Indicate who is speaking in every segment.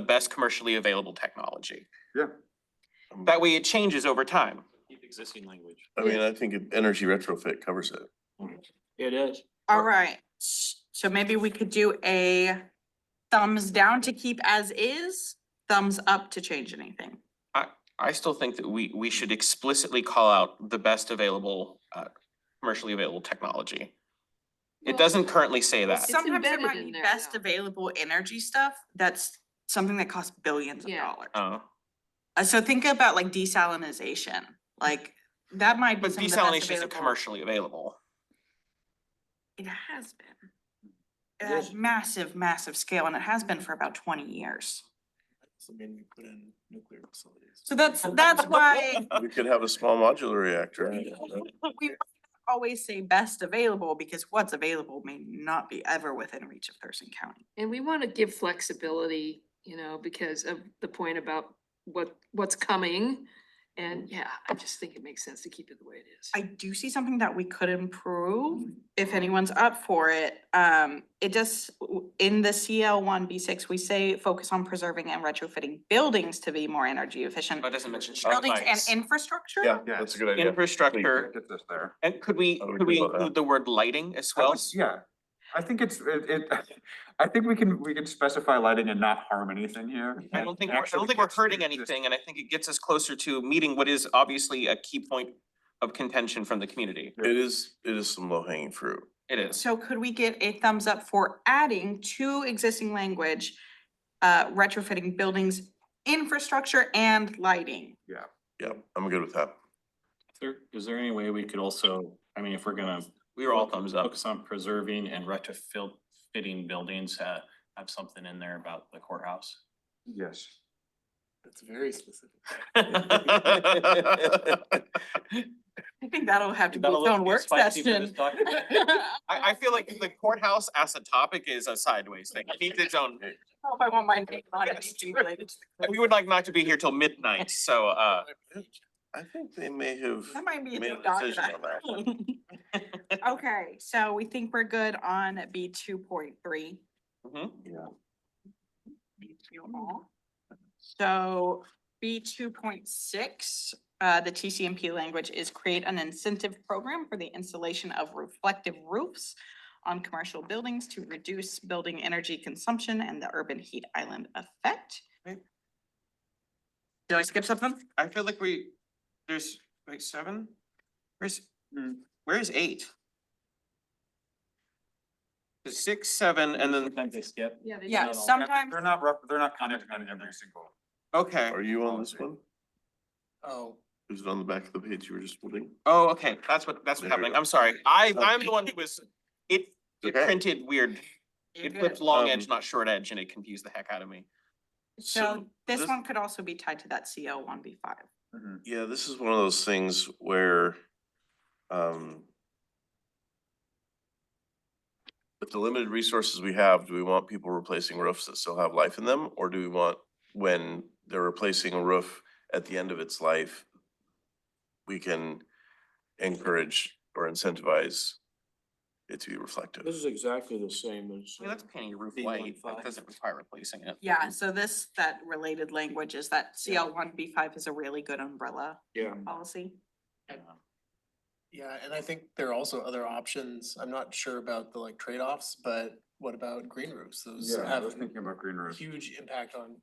Speaker 1: the best commercially available technology.
Speaker 2: Yeah.
Speaker 1: That way it changes over time.
Speaker 3: Existing language.
Speaker 4: I mean, I think it- energy retrofit covers it.
Speaker 3: It is.
Speaker 5: All right, s- so maybe we could do a thumbs down to keep as is, thumbs up to change anything.
Speaker 1: I still think that we, we should explicitly call out the best available, uh, commercially available technology. It
Speaker 6: Well,
Speaker 1: doesn't currently say that.
Speaker 6: It's
Speaker 5: Sometimes there
Speaker 6: embedded
Speaker 5: might
Speaker 6: in
Speaker 5: be
Speaker 6: there
Speaker 5: best
Speaker 6: now.
Speaker 5: available energy stuff, that's something that costs billions of
Speaker 6: Yeah.
Speaker 5: dollars.
Speaker 1: Uh,
Speaker 5: Uh, so think about like desalinization, like that might be
Speaker 1: but
Speaker 5: some of the best
Speaker 1: desalination isn't
Speaker 5: available-
Speaker 1: commercially available.
Speaker 5: It has been. It has massive, massive scale and it has been for about twenty years.
Speaker 3: I mean, we put in nuclear facilities.
Speaker 5: So that's, that's why
Speaker 4: We could have a small modular reactor.
Speaker 5: we always say best available because what's available may not be ever within reach of Thurston County.
Speaker 6: And we wanna give flexibility, you know, because of the point about what, what's coming. And yeah, I just think it makes sense to keep it the way it is.
Speaker 5: I do see something that we could improve if anyone's up for it. Um, it just, w- in the CL one B six, we say focus on preserving and retrofitting buildings to be more energy efficient.
Speaker 1: Oh, It doesn't
Speaker 7: uh,
Speaker 1: mention shop
Speaker 5: Buildings and
Speaker 1: lights.
Speaker 5: infrastructure?
Speaker 4: Yeah,
Speaker 2: Yeah.
Speaker 4: that's a good idea.
Speaker 1: Infrastructure,
Speaker 2: Get this there.
Speaker 1: and could we,
Speaker 4: I would
Speaker 1: could we
Speaker 4: agree with that.
Speaker 1: include the word lighting as
Speaker 2: I
Speaker 1: well?
Speaker 2: would- Yeah, I think it's, it, it, I think we can, we can specify lighting and not harm anything here.
Speaker 1: I don't think, we're- I don't think we're hurting anything, and I think it gets us closer to meeting what is obviously a key point of contention from the community.
Speaker 4: It is, it is some low hanging fruit.
Speaker 1: It is.
Speaker 5: So could we get a thumbs up for adding to existing language, uh, retrofitting buildings, infrastructure and lighting?
Speaker 4: Yep, I'm good with that.
Speaker 7: There, is there any way we could also, I mean, if we're gonna
Speaker 1: We were all thumbs up.
Speaker 7: focus on preserving and retrofitting buildings, uh, have something in there about the courthouse?
Speaker 2: Yes.
Speaker 3: That's very specific.
Speaker 5: I think that'll have to be
Speaker 7: That'll
Speaker 5: its own
Speaker 7: look
Speaker 5: work
Speaker 7: spicy for this
Speaker 5: session.
Speaker 7: document.
Speaker 1: I, I feel like the courthouse as a topic is a sideways thing. It needs its own.
Speaker 5: don't know if I want my name on it,
Speaker 1: Yes.
Speaker 5: anything related to the
Speaker 1: We
Speaker 5: clerk.
Speaker 1: would like not to be here till midnight, so, uh,
Speaker 4: I think they may have,
Speaker 5: That might be a
Speaker 4: made
Speaker 5: new
Speaker 4: a decision
Speaker 5: document. Okay, so we think we're good on B two point three.
Speaker 1: mhm.
Speaker 5: So B two point six, uh, the TCMP language is create an incentive program for the installation of reflective roofs on commercial buildings to reduce building energy consumption and the urban heat island effect.
Speaker 1: Right.
Speaker 5: Did I skip something?
Speaker 1: I feel like we, there's like seven? Where's, hmm, where is eight? There's Six, seven, and then,
Speaker 7: Sometimes they skip.
Speaker 6: Yeah. they
Speaker 5: Yeah,
Speaker 6: do.
Speaker 5: sometimes,
Speaker 2: They're not, rep- they're not commenting on every single.
Speaker 1: okay,
Speaker 4: are you on this one?
Speaker 1: oh,
Speaker 4: Is it on the back of the page you were just holding?
Speaker 1: oh, okay, that's what, that's what's
Speaker 4: There we
Speaker 1: happening,
Speaker 4: go.
Speaker 1: I'm sorry, I, I'm the one who was, it, it
Speaker 4: Okay.
Speaker 1: printed weird.
Speaker 5: You're
Speaker 1: It flipped
Speaker 5: good.
Speaker 1: long
Speaker 4: Um,
Speaker 1: edge, not short edge, and it confused the heck out of me.
Speaker 5: so this
Speaker 4: this-
Speaker 5: one could also be tied to that CO one B five.
Speaker 2: Mhm.
Speaker 4: Yeah, this is one of those things where, um, with the limited resources we have, do we want people replacing roofs that still have life in them? Or do we want, when they're replacing a roof at the end of its life, we can encourage or incentivize it to be reflective?
Speaker 3: This is exactly the same as.
Speaker 1: I mean, that's painting a roof
Speaker 3: B
Speaker 1: white, that
Speaker 3: 15.
Speaker 1: doesn't require replacing it.
Speaker 5: Yeah, so this, that related language is that CL one B five is a really good umbrella
Speaker 3: Yeah.
Speaker 5: policy.
Speaker 3: uh,
Speaker 8: Yeah, and I think there are also other options. I'm not sure about the like trade-offs, but what about green roofs? Those
Speaker 2: Yeah, I
Speaker 8: have
Speaker 2: was thinking about green roofs.
Speaker 8: huge impact on.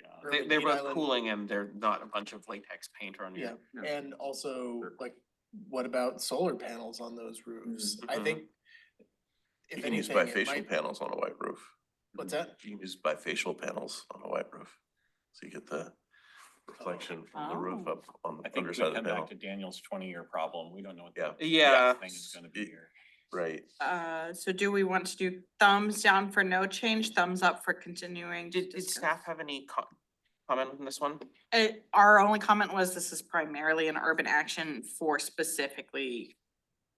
Speaker 7: Yeah.
Speaker 1: They,
Speaker 8: urban
Speaker 1: they're
Speaker 8: heat
Speaker 1: both
Speaker 8: island,
Speaker 1: cooling and they're not a bunch of latex paint on you.
Speaker 8: Yeah, and also
Speaker 2: Sure.
Speaker 8: like, what about solar panels on those roofs? I
Speaker 1: Mhm.
Speaker 8: think.
Speaker 4: You
Speaker 8: If
Speaker 4: can use
Speaker 8: anything, it
Speaker 4: bifacial
Speaker 8: might,
Speaker 4: panels on a white roof.
Speaker 8: what's that?
Speaker 4: You can use bifacial panels on a white roof. So you get the reflection from the roof
Speaker 5: Oh.
Speaker 4: up on
Speaker 7: I
Speaker 4: the
Speaker 7: think we
Speaker 4: underside of the
Speaker 7: come
Speaker 4: panel.
Speaker 7: back to Daniel's twenty-year problem. We don't know what.
Speaker 4: Yeah.
Speaker 7: the
Speaker 1: Yeah.
Speaker 7: Thing is gonna be here.
Speaker 4: Right.
Speaker 5: Uh, so do we want to do thumbs down for no change, thumbs up for continuing? to
Speaker 1: Did, did
Speaker 5: discuss?
Speaker 1: staff have any co- comment on this one?
Speaker 5: Uh, our only comment was this is primarily an urban action for specifically.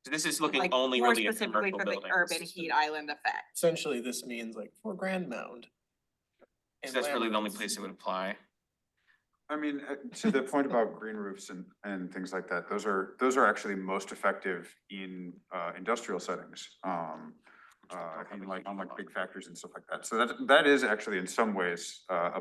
Speaker 1: So This is looking
Speaker 5: like,
Speaker 1: only
Speaker 5: more
Speaker 1: really at
Speaker 5: specifically
Speaker 1: commercial
Speaker 5: for the Urban
Speaker 1: buildings.
Speaker 5: heat island effect.
Speaker 8: Essentially, this means like for Grand Mound.
Speaker 1: So
Speaker 8: and
Speaker 1: that's really the only
Speaker 8: Lambert's.
Speaker 1: place it would apply.
Speaker 2: I mean, uh, to the point about green roofs and, and things like that, those are, those are actually most effective in, uh, industrial settings. Um, uh, in like, on like big factories and stuff like that. So that, that is actually in some ways, uh, a